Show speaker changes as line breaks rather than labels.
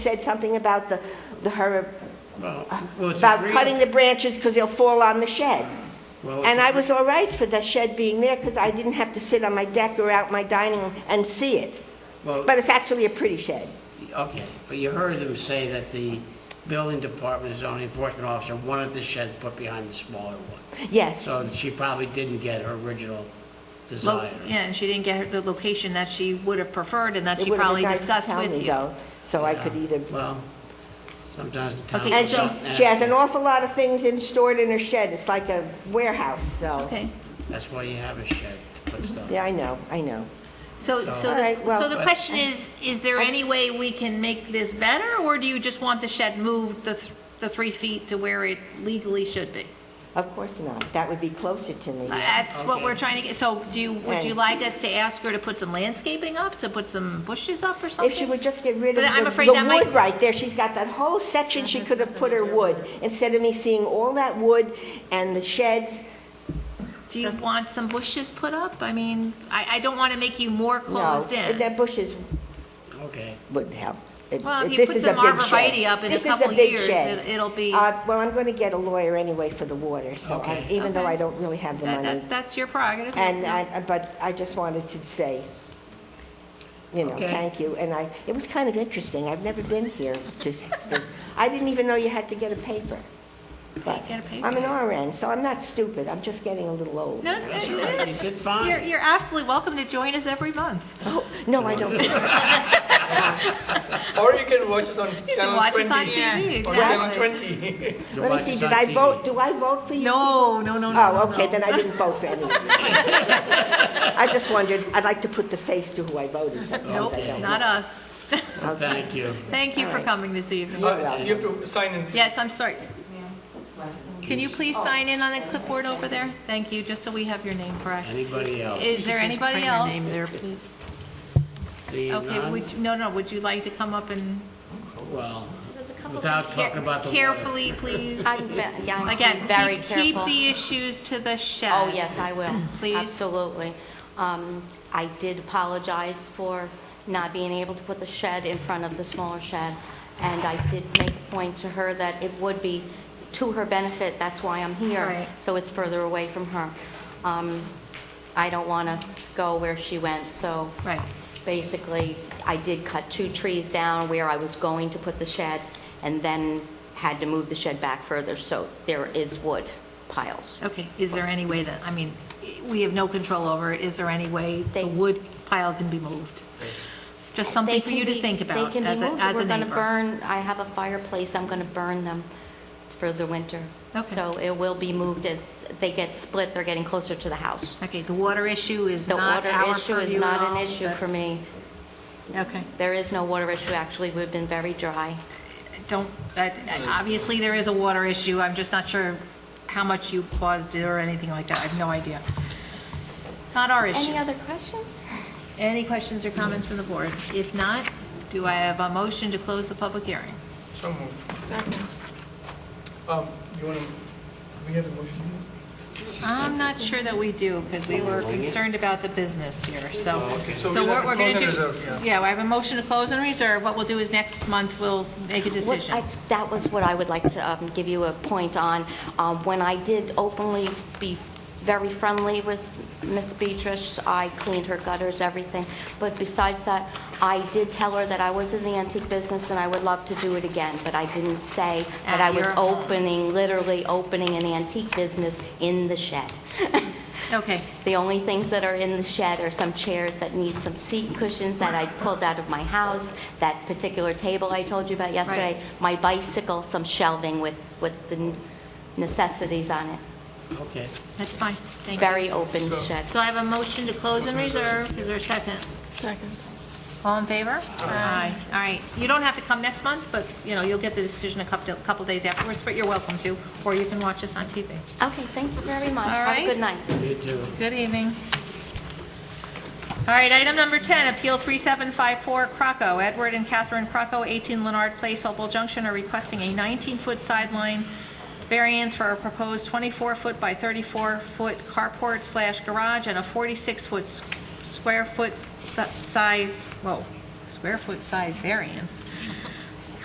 said something about the, the her,
Well, it's
about
agreed-
cutting the branches because they'll fall on the shed.
well, it's
And I
agreed-
was all right for the shed being there because I didn't have to sit on my deck or out my dining room and see it.
well,
But it's actually a pretty shed.
Okay, but you heard them say that the building department, zoning enforcement officer wanted the shed put behind the smaller one.
Yes,
So she probably didn't get her original
lo-
desire.
Yeah, and she didn't get her- the location that she would have preferred and that
it
she
would have
probably
been nice to
discussed
tell
with
me
you.
though, so I could
Yeah,
either.
Well, sometimes the town.
Okay,
And
does
she,
something
she has an
after.
awful lot of things in, stored in her shed. It's like a warehouse, so.
Okay,
That's why you have a shed to put stuff.
Yeah, I know, I know.
so,
So-
so,
All right,
the-
well-
so the question is, is there any way we can make this better? Or do you just want the shed moved the, th- the three feet to where it legally should be?
Of course not. That would be closer to me.
That's what we're
Okay.
trying to get, so do you, would you
Right.
like us to ask her to put some landscaping up, to put some bushes up or
If she
something?
would just get rid of
But I'm
the,
afraid
the
that might-
wood right there, she's got that whole section, she could have put her wood, instead of me seeing all that wood and the sheds.
Do you want some bushes put up? I mean, I, I don't want to make you more
No,
closed in.
That bushes
Okay,
wouldn't help. It-
Well, if you
this
put
is a
some
big shed.
arborvitae up in a
This is
couple
big
years,
shed.
it- it'll be-
Uh, Well, I'm going to get a lawyer anyway for the water, so, I-
Okay.
even though
Okay.
I don't really have the
That-
money.
that- That's your prerogative.
And I, but I just wanted to say, you know,
Okay.
thank you. And I, it was kind of interesting, I've never been here to, I didn't even know you had to get a paper. But
Get a paper.
I'm an RN, so I'm not stupid, I'm just getting a little old.
No, no,
That's
it
all right. You
is.
did fine.
You're, you're absolutely welcome to join us every month.
No, I don't.
Or you can watch us on
You
channel
can watch
20.
us on TV,
On channel
exactly.
20.
You'll
Let me
watch
see,
us
did
on
I
TV.
vote, do I vote for you?
No, no, no, no.
Oh,
no,
okay,
no.
then I didn't vote for anyone. I just wondered, I'd like to put the face to who I voted. sometimes I
Nope,
don't.
not us.
Thank you.
Thank you
All
for
right.
coming this evening.
Yeah.
Uh, You have to sign in.
Yes, I'm sorry. Can you please sign in on the clipboard over there? Thank you, just so we have your name correct.
Anybody else?
Is there anybody
your
else?
name there,
please.
Seeing
Okay,
none?
would, you- no, no, would you like to come up and
Well,
couple
without
things.
talking about the water.
Carefully, please.
I'm, ve- yeah, I'm
Again,
very
keep, keep
careful.
the issues to the shed.
Oh, yes, I will.
Please.
Absolutely. Um, I did apologize for not being able to put the shed in front of the smaller shed, and I did make a point to her that it would be to her benefit, that's why I'm here,
Right.
so it's further away from her. Um, I don't want to go where she went, so
Right.
basically, I did cut two trees down where I was going to put the shed, and then had to move the shed back further, so there is wood piles.
Okay, is there any way that, I mean, we have no control over it, is there any way the
They-
wood pile can be moved? Just something
They
for
can
you to
be-
think about
They can be
as a,
moved.
as a
We're
neighbor.
going to burn, I have a fireplace, I'm going to burn them for the winter.
Okay.
So it will be moved as they get split, they're getting closer to the house.
Okay, the water issue is
The
not
water
our
issue is
purview at
not an
all.
issue for me.
That's- Okay,
There is no water issue, actually, we've been very dry.
don't, that- obviously, there is a water issue, I'm just not sure how much you paused it or anything like that, I have no idea. Not our issue.
Any other questions?
Any questions or comments from the board? If not, do I have a motion to close the public hearing?
So moved. Um, you want to, we have a motion?
I'm not sure that we do, because we were concerned about the business here, so.
okay. So
So
we'll
what
have
we're
to
going to
close and
do,
reserve,
yeah, I have a motion to close and reserve. What we'll do is next month, we'll make a
What
decision.
I- That was what I would like to um, give you a point on. Um, When I did openly be very friendly with Miss Beatrice, I cleaned her gutters, everything, but besides that, I did tell her that I was in the antique business and I would love to do it again, but I didn't say that
At
I was
your home.
opening, literally opening an antique business in the shed.
Okay,
The only things that are in the shed are some chairs that need some seat cushions that I pulled out of my house, that particular table I told you about yesterday, my bicycle, some shelving with, with the necessities on it.
Okay.
that's fine, thank you.
Very open shed.
So I have a motion to close and reserve. Is there a second?
Second.
All in favor? Aye. All right, you don't have to come next month, but, you know, you'll get the decision a couple, couple days afterwards, but you're welcome to, or you can watch us on TV.
Okay, thank you very much.
All
Have a
right.
good night.
You too.
Good evening. All right, item number 10, Appeal 3754 Croco. Edward and Catherine Croco, 18 Leonard Place, Hopewell Junction, are requesting a 19-foot sideline variance for a proposed 24-foot by 34-foot carport slash garage and a 46-foot s- square foot si- size, whoa, square foot size variance